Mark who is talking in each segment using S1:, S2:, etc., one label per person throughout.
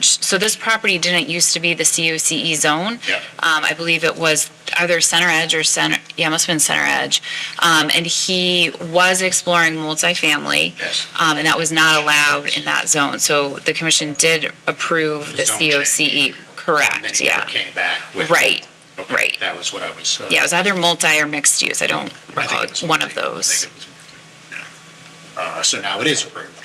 S1: So this property didn't used to be the COCE E zone.
S2: Yeah.
S1: Um, I believe it was either Center Edge or Center, yeah, it must have been Center Edge. Um, and he was exploring multifamily.
S2: Yes.
S1: Um, and that was not allowed in that zone. So the commission did approve the
S2: Zone change.
S1: COCE.
S2: And then
S1: E, Correct,
S2: he
S1: yeah.
S2: Came back with.
S1: Right,
S2: Okay,
S1: right.
S2: That was what I was. uh,
S1: Yeah, it was either multi or mixed use. I don't
S2: I think
S1: recall.
S2: it
S1: It's
S2: was
S1: one of
S2: multi. I
S1: those.
S2: think it was multi, yeah. Uh, so now it is approved.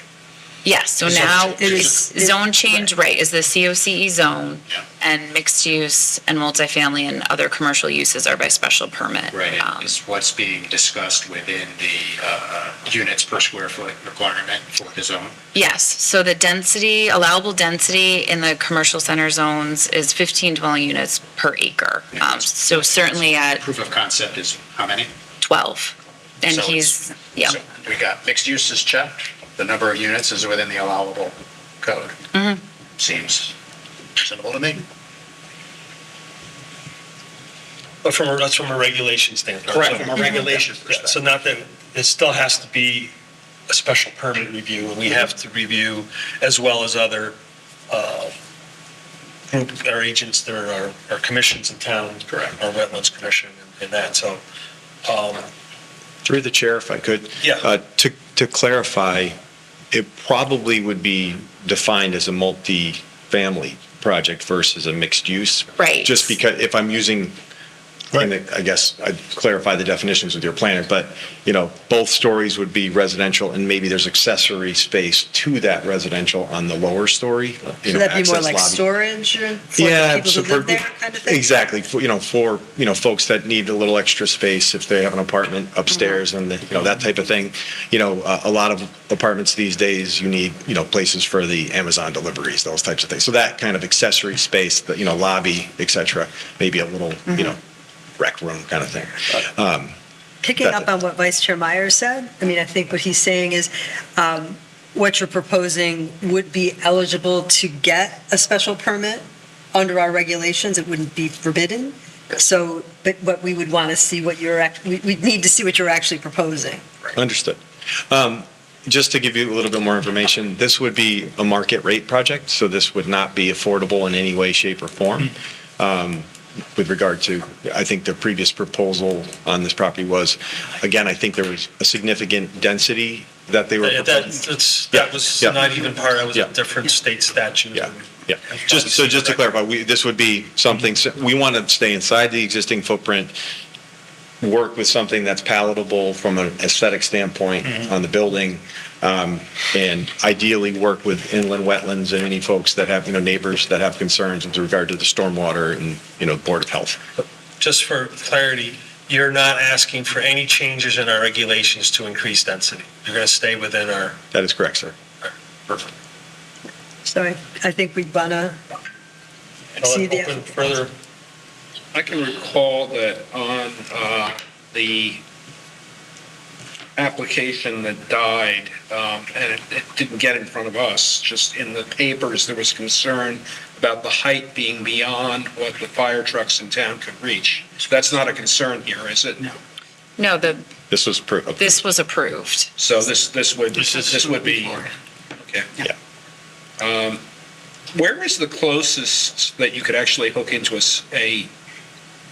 S1: Yes, so
S2: Zone
S1: now
S2: change.
S1: is
S3: It is- it-
S1: zone change, right, is the COCE E zone.
S2: Yeah.
S1: And mixed use and multifamily and other commercial uses are by special permit.
S2: Right,
S1: Um,
S2: it's what's being discussed within the, uh, units per square foot requirement for the zone.
S1: Yes, so the density, allowable density in the commercial center zones is 15 dwelling units per acre.
S2: Yeah.
S1: Um, So certainly at
S2: Proof of concept is how many?
S1: 12. And
S2: So it's-
S1: he's, yeah,
S4: So We got mixed use is checked, the number of units is within the allowable code.
S1: Mm-hmm.
S4: Seems reasonable to me.
S5: But from, a- that's from a regulation standpoint.
S4: Correct, from a
S5: So-
S4: regulation
S5: Yeah, So
S4: perspective.
S5: not that, it still has to be a special permit review, and we
S6: Mm-hmm.
S5: have to review as well as other uh,
S6: Mm-hmm.
S5: group, our agents, there are, our commissions in town.
S4: Correct.
S5: Our wetlands commission and that, so, um,
S6: Through the chair, if I could.
S5: Yeah.
S6: Uh, To, to clarify, it probably would be defined as a multi-family project versus a mixed use.
S1: Right.
S6: Just because, if I'm using, and I guess I'd clarify the definitions with your planner, but, you know, both stories would be residential and maybe there's accessory space to that residential on the lower story. you know,
S3: Should that be more
S6: access
S3: like
S6: lobby.
S3: storage or for
S6: Yeah,
S3: the people who
S6: so
S3: live
S6: for-
S3: there kind of thing?
S6: Exactly, for, you know, for, you know, folks that need a little extra space if they have an apartment
S3: Mm-hmm.
S6: upstairs and, the- you know, that type of thing. You know, a, a lot of apartments these days, you need, you know, places for the Amazon deliveries, those types of things. So that kind of accessory space, the, you know, lobby, et cetera, maybe a little,
S3: Mm-hmm.
S6: you know, rec room kind of thing. Um,
S3: Picking up on what Vice Chair Meyer said, I mean, I think what he's saying is um, what you're proposing would be eligible to get a special permit under our regulations. It wouldn't be forbidden. So, but what we would want to see what you're, act- we- we'd need to see what you're actually proposing.
S6: Understood. Um, Just to give you a little bit more information, this would be a market rate project, so this would not be affordable in any way, shape, or form.
S5: Hmm.
S6: Um, With regard to, I think the previous proposal on this property was, again, I think there was a significant density that they were.
S5: that, that's,
S6: Yeah,
S5: that was
S6: yeah.
S5: not even part, that was
S6: Yeah.
S5: a different state statute.
S6: Yeah, yeah. Just, so just to clarify, we, this would be something, we want to stay inside the existing footprint, work with something that's palatable from an aesthetic standpoint on the building, um, and ideally work with inland wetlands and any folks that have, you know, neighbors that have concerns with regard to the stormwater and, you know, Board of Health.
S5: Just for clarity, you're not asking for any changes in our regulations to increase density. You're going to stay within our
S6: That is correct, sir.
S3: So I I think we'd want to see the.
S5: Open Further,
S7: I can recall that on uh, the application that died, um, and it it didn't get in front of us, just in the papers, there was concern about the height being beyond what the fire trucks in town could reach. So that's not a concern here, is it? No.
S1: no, the,
S6: This was approved.
S1: this was approved.
S7: So this, this would,
S5: This is-
S7: this would be, okay.
S6: Yeah.
S7: Um, Where is the closest that you could actually hook into a s- a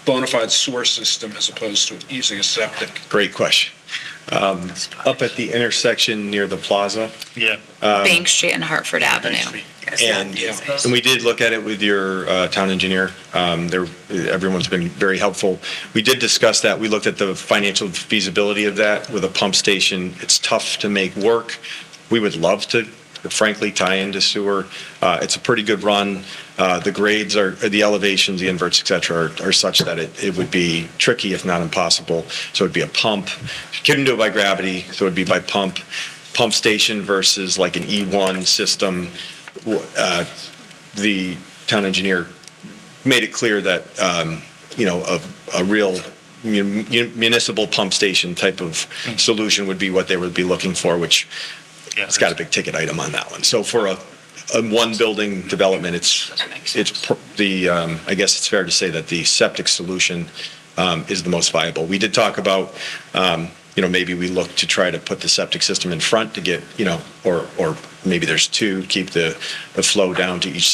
S7: bona fide sewer system as opposed to using a septic?
S6: Great question. Um, Up at the intersection near the plaza,
S5: yeah.
S2: Um,
S1: Bank Street and Hartford Avenue.
S6: And,
S7: Yeah.
S6: and we did look at it with your uh, town engineer. Um, There, everyone's been very helpful. We did discuss that. We looked at the financial feasibility of that with a pump station. It's tough to make work. We would love to frankly tie into sewer. Uh, It's a pretty good run. Uh, The grades are, the elevations, the inverts, et cetera, are- are such that it, it would be tricky if not impossible. So it'd be a pump. Couldn't do it by gravity, so it'd be by pump. Pump station versus like an E1 system uh, the town engineer made it clear that, um, you know, a, a real mun- municipal pump station type of solution would be what they would be looking for, which it's got a big ticket item on that one. So for a, a one building development, it's, it's pr- the, um, I guess it's fair to say that the septic solution um, is the most viable. We did talk about, um, you know, maybe we look to try to put the septic system in front to get, you know, or, or maybe there's two, keep the, the flow down to each